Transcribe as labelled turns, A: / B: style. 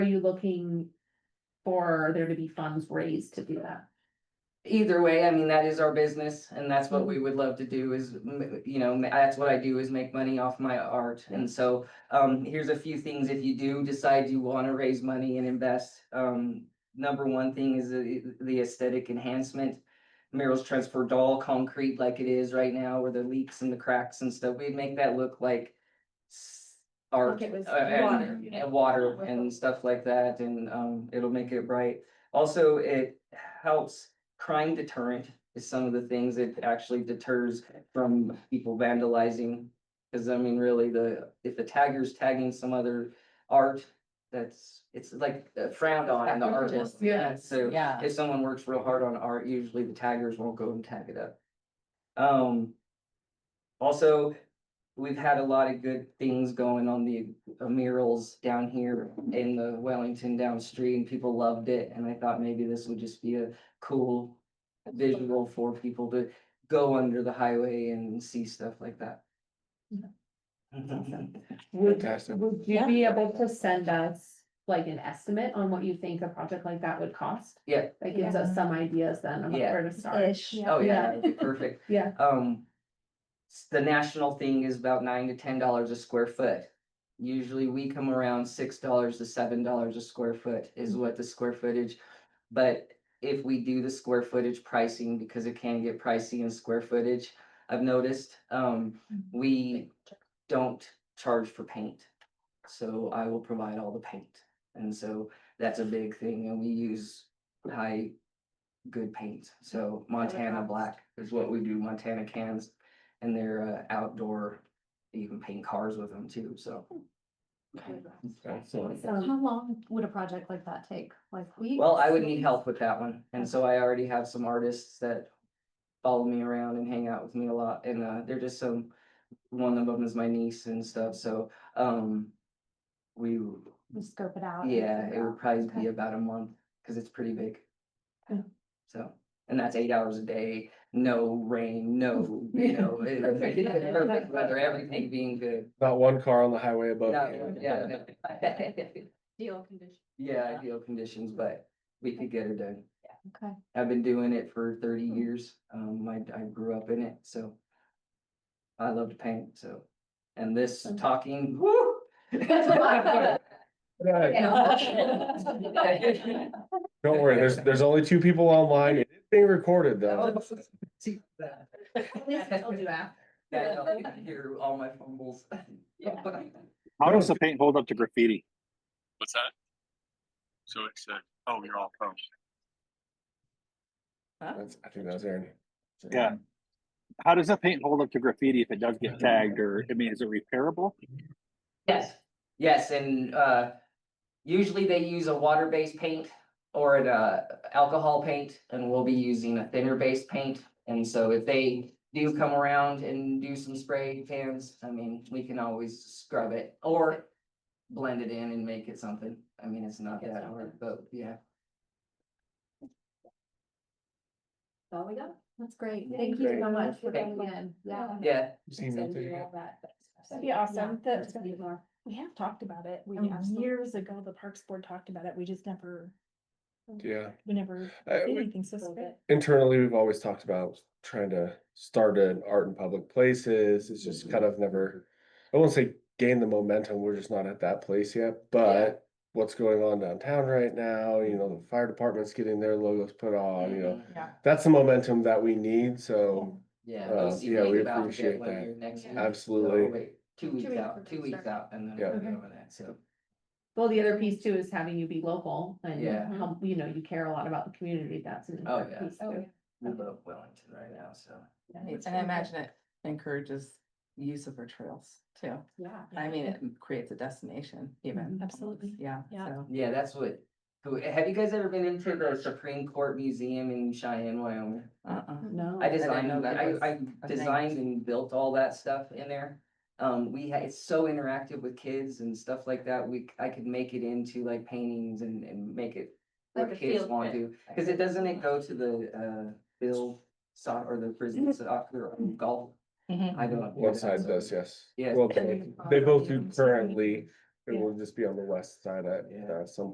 A: Are you looking for there to be funds raised to do that?
B: Either way, I mean, that is our business and that's what we would love to do is, m- you know, ma- that's what I do is make money off my art. And so, um, here's a few things if you do decide you want to raise money and invest. Um, number one thing is the, the aesthetic enhancement. Merrill's transferred all concrete like it is right now where the leaks and the cracks and stuff, we'd make that look like s- art
A: Like it was
B: uh, and-
A: water, you know?
B: and water and stuff like that, and um, it'll make it bright. Also, it helps crime deterrent is some of the things it actually deters from people vandalizing. Cause I mean, really, the, if the tagger's tagging some other art, that's, it's like frowned on in the artist.
A: Yeah.
B: So
C: Yeah.
B: if someone works real hard on art, usually the taggers won't go and tag it up. Um. Also, we've had a lot of good things going on the murals down here in the Wellington downstream. People loved it and I thought maybe this would just be a cool. Visual for people to go under the highway and see stuff like that.
A: Yeah. Would,
D: Fantastic.
A: would you be able to send us like an estimate on what you think a project like that would cost?
B: Yeah.
A: That gives us some ideas then of
B: Yeah.
A: where to start.
B: Oh, yeah, that'd be perfect.
A: Yeah.
B: Um. s- The national thing is about nine to ten dollars a square foot. Usually we come around six dollars to seven dollars a square foot is what the square footage. But if we do the square footage pricing, because it can get pricey in square footage, I've noticed, um, we don't charge for paint. So I will provide all the paint. And so that's a big thing and we use high, good paint. So Montana
A: cost.
B: black is what we do, Montana cans. And they're uh, outdoor, you can paint cars with them too, so.
D: Excellent.
A: Um,
C: How long would a project like that take? Like weeks?
B: Well, I would need help with that one. And so I already have some artists that follow me around and hang out with me a lot. And uh, they're just some, one of them is my niece and stuff. So um, we,
C: We scope it out. and
B: yeah, it
C: figure
B: would probably be
C: Okay.
B: about a month because it's pretty big.
A: Okay.
B: So, and that's eight hours a day, no rain, no, you know, it-
A: Perfect.
B: perfect weather, everything being good.
D: Not one car on the highway above.
B: No,
D: you.
B: yeah, no.
C: Deal condition.
B: Yeah, ideal conditions, but we could get it done.
C: Okay.
B: I've been doing it for thirty years. Um, I, I grew up in it, so. I love to paint, so, and this talking, woo!
D: Right.
A: Yeah.
D: Don't worry, there's, there's only two people online. It's being recorded though.
B: See that.
A: I'll do that.
B: Yeah, no, you can hear all my fumbles.
E: How does the paint hold up to graffiti?
F: What's that? So it's uh, oh, you're all pro.
D: That's, I think that's Aaron.
E: Yeah. How does the paint hold up to graffiti if it does get tagged or, I mean, is it repairable?
B: Yes. Yes, and uh, usually they use a water-based paint or an uh, alcohol paint, and we'll be using a thinner-based paint. And so if they do come around and do some spray cans, I mean, we can always scrub it or blend it in and make it something. I mean, it's not
A: It's
B: that
A: not
B: hard, but yeah.
A: All we got.
C: That's great.
A: Yeah,
C: Thank you
D: great.
C: so much for
B: Thank
C: coming in. Yeah.
B: Yeah,
D: Seen nothing.
C: That'd
G: be awesome. That-
C: That's gonna be more.
G: We have talked about it. We
C: And
G: Oh, years ago, the Parks Board talked about it. We just never,
D: Yeah.
G: we never
D: Uh,
G: did
D: we-
G: anything so
C: great.
D: Internally, we've always talked about trying to start an art in public places. It's just kind of never, I won't say gain the momentum. We're just not at that place yet, but what's going on downtown right now, you know, the fire department's getting their logos put on, you
B: Mm-hmm.
D: know, that's the momentum that we need. So
B: yeah.
D: Uh,
B: we'll see
D: yeah,
B: what
D: we
B: about it
D: appreciate
B: when
D: that.
B: you're Next week.
C: Yeah.
B: Oh,
D: absolutely.
B: wait, Two weeks
C: weeks
B: out,
C: for
B: two weeks
C: construction.
B: out, and then
D: Yeah.
B: we'll
G: Okay.
B: go with that, so.
A: Well, the other piece too is having you be local and
B: Yeah.
A: how, you know, you care a lot about the community. That's an
B: Oh,
A: important
B: yeah.
A: piece too.
B: We love Wellington right now, so.
H: And I imagine it encourages use of our trails too.
A: Yeah.
H: I mean, it creates a destination even.
G: Mm-hmm. Absolutely.
H: Yeah.
G: Yeah.
H: so.
B: Yeah, that's what, who- have you guys ever been into the Supreme Court Museum in Cheyenne, Wyoming?
H: Uh-uh.
A: No.
C: Oh,
B: I
H: didn't
B: designed,
H: know that
B: I,
H: was
B: I
H: a thing.
B: designed and built all that stuff in there. Um, we had, it's so interactive with kids and stuff like that, we, I could make it into like paintings and, and make it
C: Like
B: what
C: a
B: kids
C: field
B: want
C: trip.
B: to, cause it doesn't it go to the, uh, Bill soc or the prison soccer or
C: Mm-hmm.
B: golf?
G: Mm-hmm.
B: I don't.
D: One side does, yes.
B: Yes.
D: Well, They both do currently. It will just be on the west side at,
B: Yeah.
D: uh, some